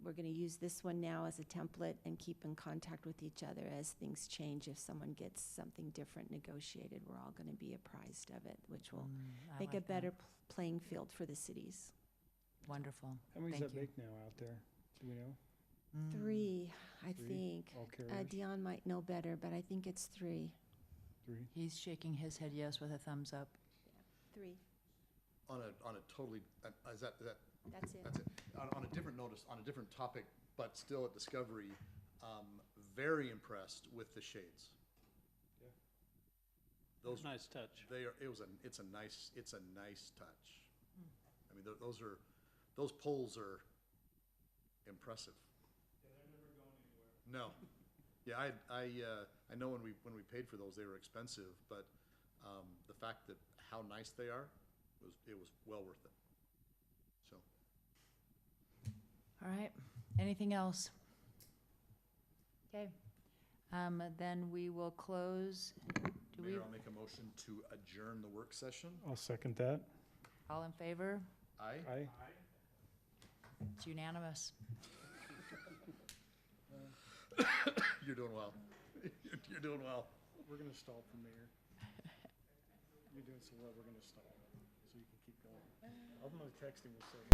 we're gonna use this one now as a template and keep in contact with each other as things change. If someone gets something different negotiated, we're all gonna be apprised of it, which will Mm, I make a like that. better pl- playing field for the cities. Wonderful. How many does Thank that you. make now out there? Do we know? Mm. Mm. Three, I Three? think. All Uh, carriers? Dion might know better, but I think it's three. Three? He's shaking his head yes with a thumbs up. Three, On a, on a totally, uh, is that, is that, that's it. that's it. On, on a different notice, on a different topic, but still at Discovery, um, very impressed with the shades. Yeah. Those, Nice touch. they are, it was a, it's a nice, it's a nice touch. I mean, tho- those are, those poles are impressive. Yeah, they're never going anywhere. No. Yeah, I, I, uh, I know when we, when we paid for those, they were expensive, but, um, the fact that how nice they are, was, it was well worth it. So, All right. Anything else? Okay. Um, then we will close. Do we, Mayor, I'll make a motion to adjourn the work session. I'll second that. all in favor? Aye? Aye. It's unanimous. You're doing well. You're- You're doing well. We're gonna stall for mayor. You're doing so well, we're gonna stall, so you can keep going. I'm gonna text him in a second.